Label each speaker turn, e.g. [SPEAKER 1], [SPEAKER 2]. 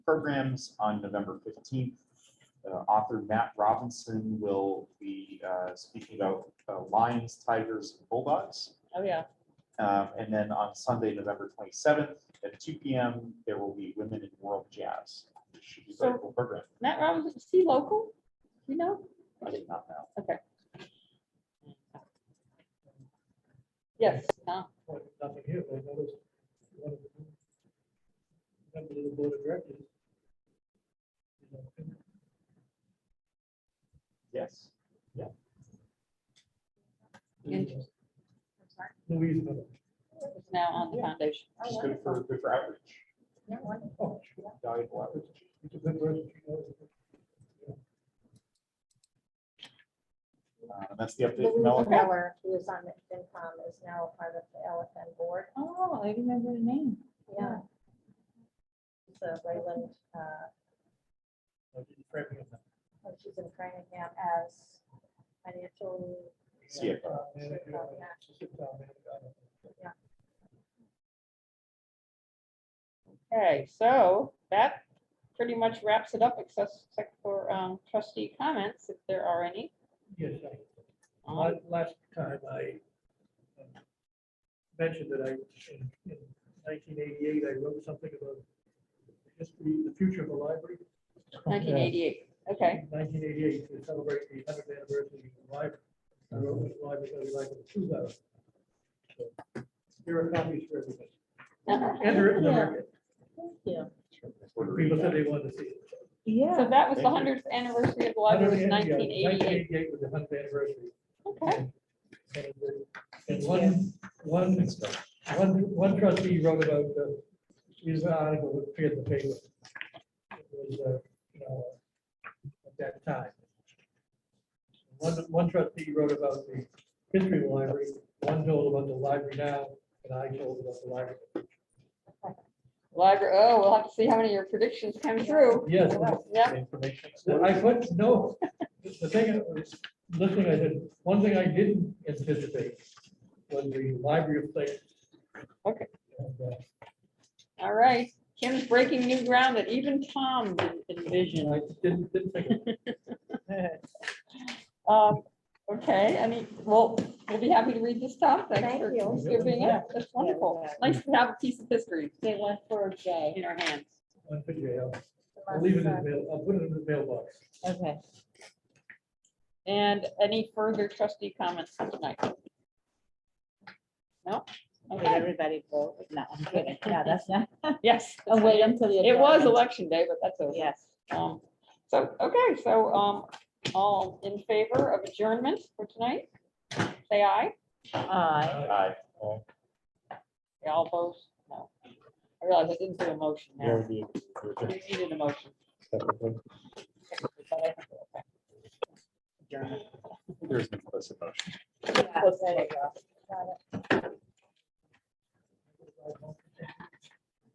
[SPEAKER 1] programs on November fifteenth. Author Matt Robinson will be uh, speaking about uh, lions, tigers, and bulldogs.
[SPEAKER 2] Oh, yeah.
[SPEAKER 1] Um, And then on Sunday, November twenty-seventh, at two P M, there will be Women in World Jazz. which Should be a very
[SPEAKER 2] So-
[SPEAKER 1] cool program.
[SPEAKER 2] Matt Robinson, is he local? You know?
[SPEAKER 1] I did not know.
[SPEAKER 2] Yes. Tom.
[SPEAKER 3] Well, Nothing here, but I noticed. one of the Member of the board of directors. you know,
[SPEAKER 1] Yes.
[SPEAKER 2] Interesting.
[SPEAKER 3] Louise. Miller.
[SPEAKER 2] It's now on the foundation.
[SPEAKER 1] Just good for, good for outreach,
[SPEAKER 3] Oh,
[SPEAKER 1] valuable outreach.
[SPEAKER 3] It's a good person. she knows it.
[SPEAKER 1] Uh, and That's the update from
[SPEAKER 4] Louise
[SPEAKER 1] Ellen.
[SPEAKER 4] Miller, who is on the FinCom, is now a part of the LFN board.
[SPEAKER 2] Oh, I remember the name.
[SPEAKER 4] Yeah. So Wayland, uh,
[SPEAKER 3] I didn't correct me on that.
[SPEAKER 4] and she's in Framingham as financial,
[SPEAKER 1] CFO.
[SPEAKER 3] Uh, man, I got it. She's a town man, I got it.
[SPEAKER 2] Okay, so that pretty much wraps it up except except for um, trustee comments, if there are any.
[SPEAKER 3] Yes, I.
[SPEAKER 2] Um,
[SPEAKER 3] La- Last time I um, mentioned that I, in in 1988, I wrote something about the history, the future of the library.
[SPEAKER 2] 1988, okay.
[SPEAKER 3] 1988 to celebrate the 100th anniversary of the library. I wrote this library, I would like to choose out. So, Here are copies for everybody. And they're in the market. People said they wanted to see it.
[SPEAKER 2] So that was the 100th anniversary of the library, was 1988.
[SPEAKER 3] 1988 was the 100th anniversary.
[SPEAKER 2] Okay.
[SPEAKER 3] And the- And one, one, one, one trustee wrote about, uh, his article that appeared in the paper. It was, uh, you know, at that time. One, one trustee wrote about the history of the library, one told about the library now, and I told about the library.
[SPEAKER 2] Library, oh, we'll have to see how many of your predictions come true.
[SPEAKER 3] Yes,
[SPEAKER 2] Yeah,
[SPEAKER 3] I put, no, the thing, I was listening, I said, one thing I didn't anticipate was the library of things.
[SPEAKER 2] Okay.
[SPEAKER 3] And, uh,
[SPEAKER 2] all right. Kim's breaking new ground that even Tom didn't envision.
[SPEAKER 3] I didn't, didn't think.
[SPEAKER 2] Um, okay, I mean, well, we'll be happy to read this stuff. Thanks
[SPEAKER 4] Thank
[SPEAKER 2] for
[SPEAKER 4] you.
[SPEAKER 2] giving
[SPEAKER 3] Yeah.
[SPEAKER 2] it. That's wonderful. Nice to have a piece of history. Say one for Jay. In our hands.
[SPEAKER 3] One for jail.
[SPEAKER 4] the
[SPEAKER 3] I'll leave it in the
[SPEAKER 4] months,
[SPEAKER 3] mail, I'll put it in the mailbox.
[SPEAKER 2] Okay. And any further trustee comments for tonight? No?
[SPEAKER 5] Did
[SPEAKER 2] Okay,
[SPEAKER 5] everybody vote? No, I'm kidding. No, that's not.
[SPEAKER 2] yes.
[SPEAKER 5] Oh, wait until the.
[SPEAKER 2] It was
[SPEAKER 5] adjournment.
[SPEAKER 2] election day, but that's okay.
[SPEAKER 5] Yes.
[SPEAKER 2] Um, so, okay, so, um, all in favor of adjournment for tonight? Say aye.
[SPEAKER 5] Aye.
[SPEAKER 1] Aye.
[SPEAKER 2] Yeah, All opposed? No. I realize I didn't do a motion now.
[SPEAKER 1] Yeah.
[SPEAKER 2] You needed a motion. but I think we're okay.
[SPEAKER 1] There's an implicit motion.
[SPEAKER 5] Yeah,
[SPEAKER 2] Let's
[SPEAKER 5] there you
[SPEAKER 2] take-
[SPEAKER 5] go.